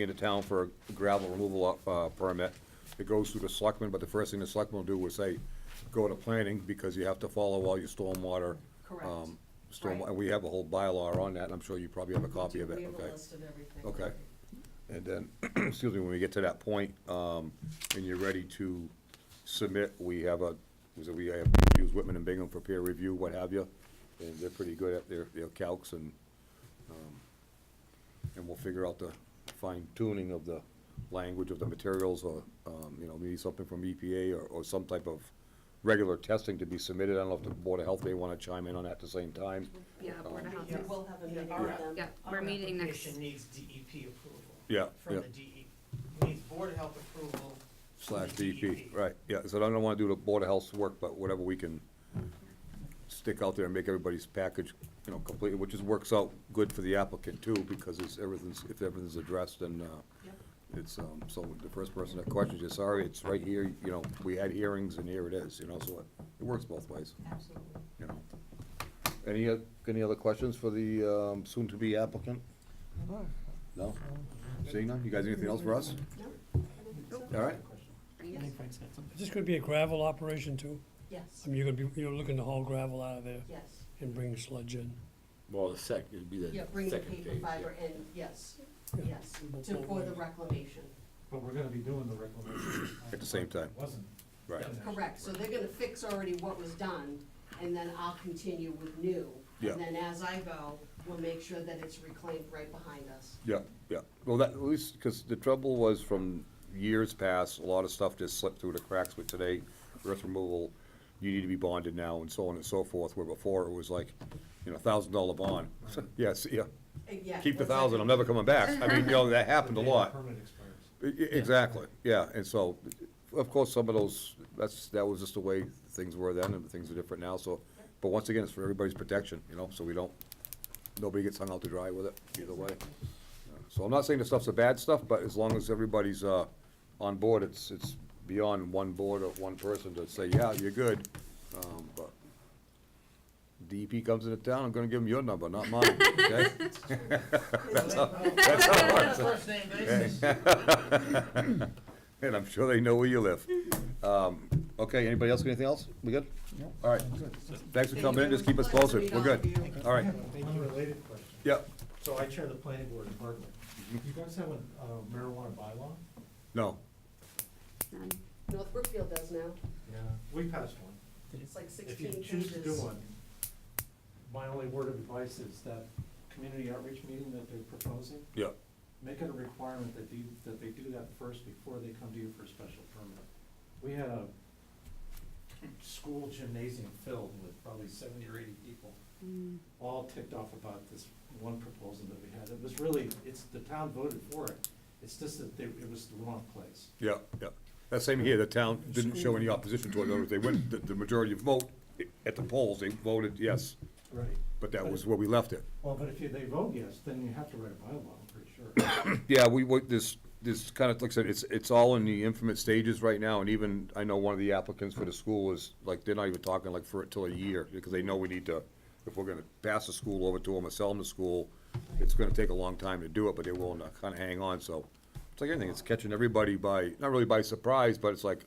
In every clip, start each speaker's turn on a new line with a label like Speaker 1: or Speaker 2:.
Speaker 1: into town for a gravel removal, uh, permit. It goes through the selectmen, but the first thing the selectmen will do is say, go to planning, because you have to follow all your stormwater.
Speaker 2: Correct.
Speaker 1: um, Storm,
Speaker 2: Right.
Speaker 1: and we have a whole bylaw on that, and I'm sure you probably have a copy of it,
Speaker 2: We
Speaker 1: okay?
Speaker 2: have a list of everything.
Speaker 1: Okay. And then, excuse me, when we get to that point, um, and you're ready to submit, we have a, was it, we have used Whitman and Bingham for peer review, what have you. And they're pretty good at their, their calcs and, um, and we'll figure out the fine tuning of the language of the materials or, um, you know, maybe something from EPA or, or some type of regular testing to be submitted. I don't know if the Board of Health may wanna chime in on that at the same time.
Speaker 3: Yeah, Board of Health
Speaker 2: We
Speaker 3: is-
Speaker 2: will have a
Speaker 4: Yeah,
Speaker 2: meeting
Speaker 4: our-
Speaker 2: with them.
Speaker 3: Yeah, we're meeting
Speaker 4: Our
Speaker 3: next,
Speaker 4: application needs DEP approval.
Speaker 1: Yeah,
Speaker 4: From
Speaker 1: yeah.
Speaker 4: the DE, needs Board of Health approval.
Speaker 1: Slash
Speaker 4: from the E
Speaker 1: DEP, right, yeah, so I don't wanna do the Board of Health's work, but whatever we can stick out there and make everybody's package, you know, complete, which is, works out good for the applicant too, because it's, everything's, if everything's addressed, then, uh,
Speaker 2: Yep.
Speaker 1: it's, um, so the first person that questions you, sorry, it's right here, you know, we had hearings and here it is, you know, so it, it works both ways,
Speaker 2: Absolutely.
Speaker 1: you know. Any, oth- any other questions for the, um, soon-to-be applicant? No? Seeing none, you guys, anything else for us?
Speaker 2: No? I don't think so.
Speaker 1: All right?
Speaker 2: Yes,
Speaker 5: Is this gonna be a gravel operation too?
Speaker 2: yes,
Speaker 5: I mean, you're gonna be, you're looking to haul gravel out of there
Speaker 2: yes.
Speaker 5: and bring sludge in?
Speaker 6: Well, the sec, it'd be the
Speaker 2: Yeah,
Speaker 6: second
Speaker 2: bringing
Speaker 6: phase.
Speaker 2: paper
Speaker 6: yeah.
Speaker 2: fiber in, yes,
Speaker 5: Yeah.
Speaker 2: yes, to, for the reclamation.
Speaker 7: But we're gonna be doing the reclamation.
Speaker 1: At the same time.
Speaker 7: Wasn't.
Speaker 1: Right.
Speaker 7: finished.
Speaker 2: Correct, so they're gonna fix already what was done, and then I'll continue with new.
Speaker 1: Yeah.
Speaker 2: And then as I go, we'll make sure that it's reclaimed right behind us.
Speaker 1: Yeah, yeah. Well, that, at least, because the trouble was from years past, a lot of stuff just slipped through the cracks, but today, earth removal, you need to be bonded now and so on and so forth, where before it was like, you know, thousand dollar bond. Yes, yeah,
Speaker 2: Uh, Yeah.
Speaker 1: keep the
Speaker 2: once I-
Speaker 1: thousand, I'm never coming back. I mean, you know, that happened a
Speaker 7: The day the
Speaker 1: lot.
Speaker 7: Permit expires.
Speaker 1: I- i- E, Exactly, yeah, and so, of course, some of those, that's, that was just the way things were then, and things are different now, so, but once again, it's for everybody's protection, you know, so we don't, nobody gets hung out to dry with it, either way. So I'm not saying the stuff's a bad stuff, but as long as everybody's, uh, on board, it's, it's beyond one board or one person to say, yeah, you're good, um, but DEP comes into town, I'm gonna give them your number, not mine, okay?
Speaker 4: First name basis.
Speaker 1: And I'm sure they know where you live. Um, Okay, anybody else, got anything else? We good? All right. Thanks for coming in, just keep us
Speaker 2: Thank you.
Speaker 1: closer, we're good.
Speaker 2: Thank you.
Speaker 1: All right,
Speaker 7: Unrelated question.
Speaker 1: yep,
Speaker 7: So I chair the planning board in Bartlett. You guys have a uh, marijuana bylaw?
Speaker 1: no,
Speaker 3: none.
Speaker 2: North Brookfield does now,
Speaker 7: Yeah. We passed one.
Speaker 2: it's like
Speaker 7: If
Speaker 2: sixteen
Speaker 7: you
Speaker 2: pages.
Speaker 7: choose to do one, my only word of advice is that community outreach meeting that they're proposing,
Speaker 1: yep,
Speaker 7: make it a requirement that you, that they do that first before they come to you for a special permit. We had a school gymnasium filled with probably seventy or eighty people, all ticked off about this one proposal that we had. It was really, it's, the town voted for it, it's just that they, it was the wrong place.
Speaker 1: yep, yep. That same here, the town didn't show any opposition to it, in other words, they went, the, the majority of vote at the polls, they voted yes,
Speaker 7: Right.
Speaker 1: but that was where we left it.
Speaker 7: Well, but if you, they vote yes, then you have to write a bylaw, I'm pretty sure.
Speaker 1: Yeah, we, we, this, this kind of, like I said, it's, it's all in the infant stages right now, and even, I know one of the applicants for the school is, like, they're not even talking like for, till a year, because they know we need to, if we're gonna pass the school over to them or sell them the school, it's gonna take a long time to do it, but they're willing to kinda hang on, so. It's like anything, it's catching everybody by, not really by surprise, but it's like,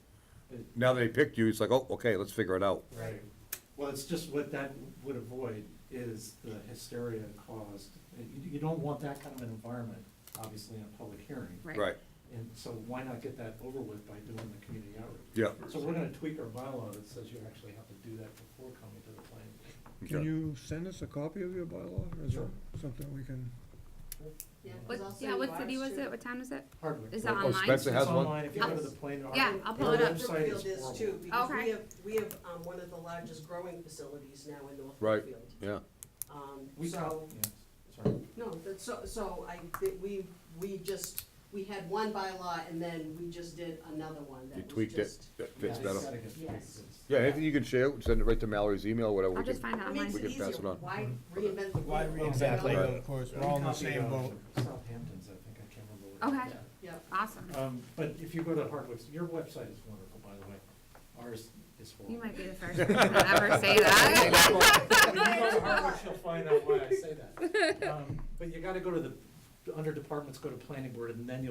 Speaker 7: It-
Speaker 1: now they picked you, it's like, oh, okay, let's figure it out.
Speaker 7: Right. Well, it's just what that would avoid is the hysteria caused. You, you don't want that kind of an environment, obviously, in a public hearing.
Speaker 3: Right.
Speaker 1: Right,
Speaker 7: And so why not get that over with by doing the community outreach?
Speaker 1: yeah.
Speaker 7: So we're gonna tweak our bylaw that says you actually have to do that before coming to the planning board.
Speaker 1: okay.
Speaker 8: Can you send us a copy of your bylaw, or is it
Speaker 7: Sure.
Speaker 8: something we can?
Speaker 2: Yeah, 'cause I'll
Speaker 3: What,
Speaker 2: send
Speaker 3: yeah,
Speaker 2: you
Speaker 3: what city
Speaker 2: ours
Speaker 3: was
Speaker 2: too.
Speaker 3: it? What town was it?
Speaker 7: Hardwick.
Speaker 3: Is that
Speaker 1: Oh,
Speaker 3: online?
Speaker 1: Spencer has
Speaker 7: It's
Speaker 1: one?
Speaker 7: online, if you go to
Speaker 3: I'll-
Speaker 7: the planning.
Speaker 3: yeah, I'll pull it
Speaker 7: Our
Speaker 3: up.
Speaker 7: website
Speaker 2: Northfield
Speaker 7: is
Speaker 2: is
Speaker 7: horrible.
Speaker 2: too, because we
Speaker 3: Okay.
Speaker 2: have, we have, um, one of the largest growing facilities now in North
Speaker 1: Right.
Speaker 2: Brookfield.
Speaker 1: Yeah,
Speaker 2: Um,
Speaker 7: We got,
Speaker 2: so,
Speaker 7: yeah, sorry.
Speaker 2: no, that's, so, so I, that we, we just, we had one bylaw and then we just did another one
Speaker 1: you
Speaker 2: that was
Speaker 1: tweaked it,
Speaker 2: just.
Speaker 1: that fits
Speaker 7: Yeah, it's
Speaker 1: better.
Speaker 7: gotta get tweaked.
Speaker 2: Yes.
Speaker 7: It's-
Speaker 1: Yeah, anything you can share, send it right to Mallory's email, or whatever. we
Speaker 3: I'll just
Speaker 1: can-
Speaker 3: find it
Speaker 2: It makes
Speaker 3: online.
Speaker 1: We
Speaker 2: it
Speaker 1: can pass
Speaker 2: easier,
Speaker 1: it on.
Speaker 2: why reinvent the wheel?
Speaker 7: Why-
Speaker 1: exactly.
Speaker 2: Yeah.
Speaker 7: Of
Speaker 8: course,
Speaker 7: We copied, uh, Southampton's, I think, I can't remember. where it
Speaker 3: Okay.
Speaker 7: is.
Speaker 2: Yep,
Speaker 3: Awesome.
Speaker 7: Um, but if you go to Hardwick's, your website is wonderful, by the way. Ours is horrible.
Speaker 3: You might be the first person to ever say that.
Speaker 7: Well, If you go to Hardwick's, you'll find out why I say that. Um, But you gotta go to the under departments, go to planning board, and then you'll